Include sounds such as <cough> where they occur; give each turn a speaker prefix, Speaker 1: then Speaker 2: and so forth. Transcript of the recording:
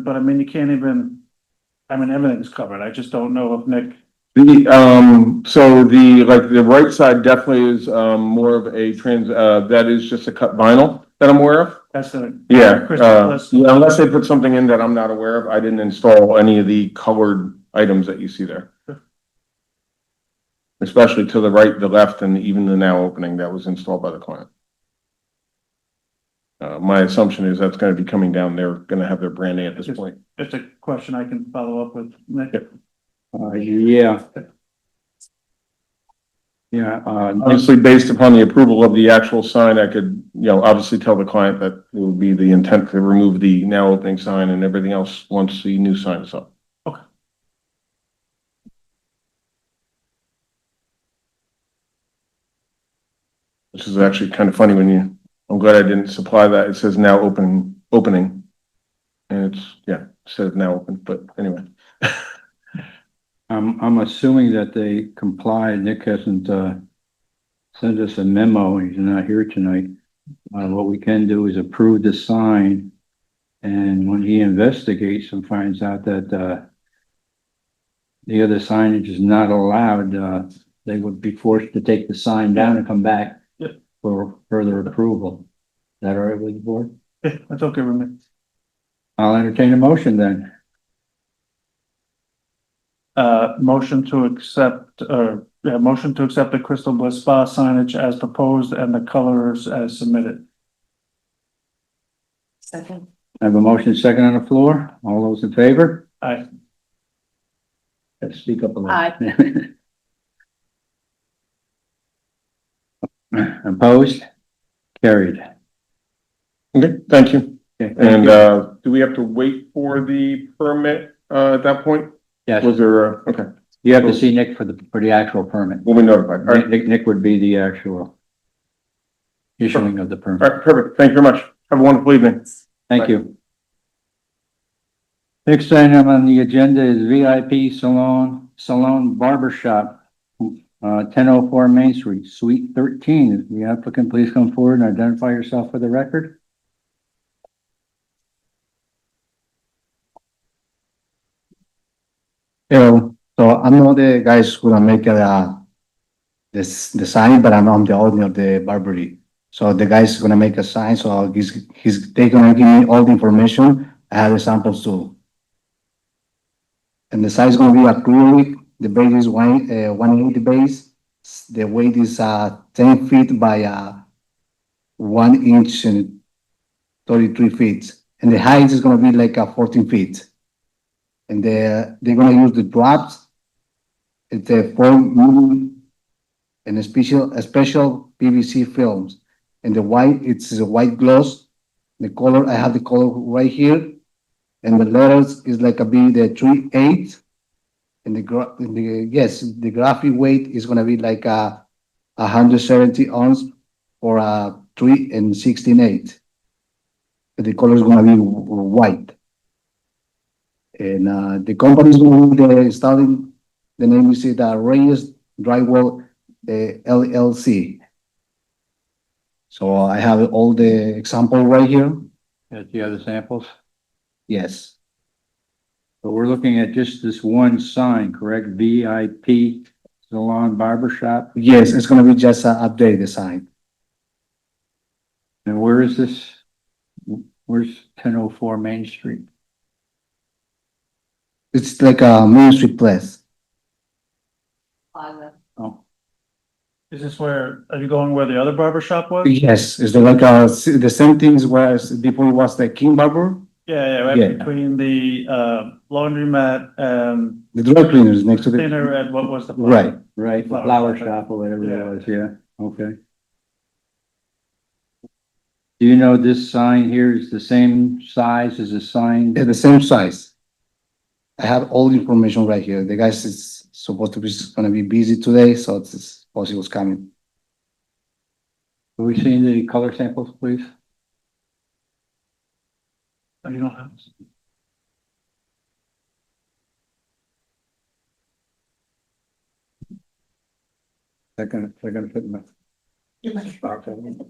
Speaker 1: but I mean, you can't even, I mean, everything's covered. I just don't know if Nick,
Speaker 2: The, um, so the, like, the right side definitely is, um, more of a trans, uh, that is just a cut vinyl that I'm aware of.
Speaker 1: that's the.
Speaker 2: Yeah,
Speaker 1: Crystal
Speaker 2: uh,
Speaker 1: Palace.
Speaker 2: yeah, unless they put something in that I'm not aware of, I didn't install any of the colored items that you see there.
Speaker 1: Sure.
Speaker 2: Especially to the right, the left, and even the now opening that was installed by the client. Uh, my assumption is that's gonna be coming down, they're gonna have their branding at this
Speaker 1: Just-
Speaker 2: point.
Speaker 1: Just a question I can follow up with Nick.
Speaker 3: Uh, yeah. Yeah, uh,
Speaker 2: Obviously, based upon the approval of the actual sign, I could, you know, obviously tell the client that it would be the intent to remove the now opening sign and everything else once the new sign is up. This is actually kind of funny when you, I'm glad I didn't supply that. It says now open, opening. And it's, yeah, it says now open, but anyway.
Speaker 3: I'm, I'm assuming that they complied. Nick hasn't, uh, sent us a memo. He's not here tonight. Uh, what we can do is approve the sign. And when he investigates and finds out that, uh, the other signage is not allowed, uh, they would be forced to take the sign down and come back
Speaker 1: Yep.
Speaker 3: for further approval. Is that all right with the board?
Speaker 1: Yeah, <laughs> That's okay with me.
Speaker 3: I'll entertain a motion then.
Speaker 1: Uh, motion to accept, or, yeah, motion to accept the Crystal Bliss Spa signage as proposed and the colors as submitted.
Speaker 4: Second.
Speaker 3: I have a motion second on the floor. All those in favor?
Speaker 1: Aye.
Speaker 3: Let's speak up a little.
Speaker 4: Aye.
Speaker 3: <laughs> Opposed? Carried.
Speaker 2: Okay, thank you.
Speaker 3: Okay, thank
Speaker 2: And,
Speaker 3: you.
Speaker 2: uh, do we have to wait for the permit, uh, at that point?
Speaker 3: Yes,
Speaker 2: Was there, a- okay,
Speaker 3: you have to see Nick for the, for the actual permit.
Speaker 2: we'll be notified. All right,
Speaker 3: Nick, Nick would be the actual issuing of the
Speaker 2: all
Speaker 3: permit.
Speaker 2: right, perfect. Thank you very much. Have a wonderful evening.
Speaker 3: Thank you. Next item on the agenda is VIP Salon, Salon Barber Shop, uh, ten oh four Main Street, Suite thirteen. The applicant, please come forward and identify yourself for the record.
Speaker 5: Hello. So I'm not the guys who are make the this the sign, but I'm, I'm the owner of the Barbary. So the guy's gonna make a sign, so he's he's they gonna give me all the information. I have the samples too. And the size gonna be acrylic. The base is one uh, one eighty base. S- The weight is uh ten feet by uh one inch and thirty three feet, and the height is gonna be like uh, fourteen feet and they're, they're gonna use the drops. It's a foam medium and a special, a special PVC films. And the white, it's a white gloss. The color, I have the color right here. And the letters is like a B, the three eight. And the gra, and the, yes, the graphic weight is gonna be like a hundred seventy ounce or a three and sixteen eight. And The color is gonna be w- w- white. And uh, the company's going to be starting, the name is it, uh, Reyes Drywall uh, LLC. So I have all the example right here.
Speaker 3: Yes, you have the samples?
Speaker 5: Yes,
Speaker 3: But we're looking at just this one sign, correct? VIP Salon Barber Shop.
Speaker 5: yes, it's going to be just an update design.
Speaker 3: And where is this? Where's ten oh four Main Street?
Speaker 5: It's like a Main Street place.
Speaker 4: Plaza.
Speaker 3: Oh,
Speaker 1: Is this where, are you going where the other barber shop was?
Speaker 5: Yes, it's like a, the same things whereas before it was the King Barber,
Speaker 1: Yeah, yeah, right
Speaker 5: Yeah.
Speaker 1: between the, uh, laundromat and
Speaker 5: the dry cleaners next to the,
Speaker 1: dinner at what was the.
Speaker 5: right.
Speaker 3: right, the
Speaker 1: Flower
Speaker 3: flower
Speaker 1: shop.
Speaker 3: shop or
Speaker 1: Yeah.
Speaker 3: whatever it was, yeah, okay. Do you know this sign here is the same size as the sign?
Speaker 5: They're the same size. I have all the information right here. The guys is supposed to be, gonna be busy today, so it's- it's possible it's coming.
Speaker 3: Have we seen the color samples, please?
Speaker 1: Oh, You don't have.
Speaker 3: They're gonna, they're gonna put in my.
Speaker 4: You're right.